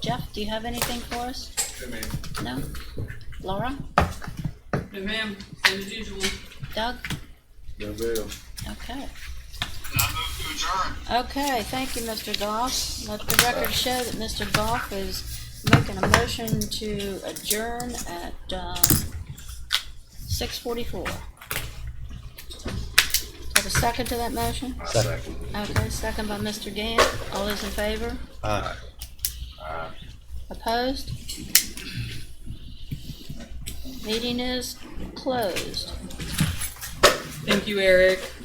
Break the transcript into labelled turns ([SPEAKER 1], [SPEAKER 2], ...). [SPEAKER 1] Jeff, do you have anything for us? No? Laura?
[SPEAKER 2] No, ma'am, same as usual.
[SPEAKER 1] Doug?
[SPEAKER 3] No bill.
[SPEAKER 1] Okay.
[SPEAKER 4] I move to adjourn.
[SPEAKER 1] Okay, thank you, Mr. Goff. Let the record show that Mr. Goff is making a motion to adjourn at, uh, six forty-four. Have a second to that motion?
[SPEAKER 3] Second.
[SPEAKER 1] Okay, second by Mr. Gant. All those in favor?
[SPEAKER 3] Aye.
[SPEAKER 1] Opposed? Meeting is closed.
[SPEAKER 2] Thank you, Eric.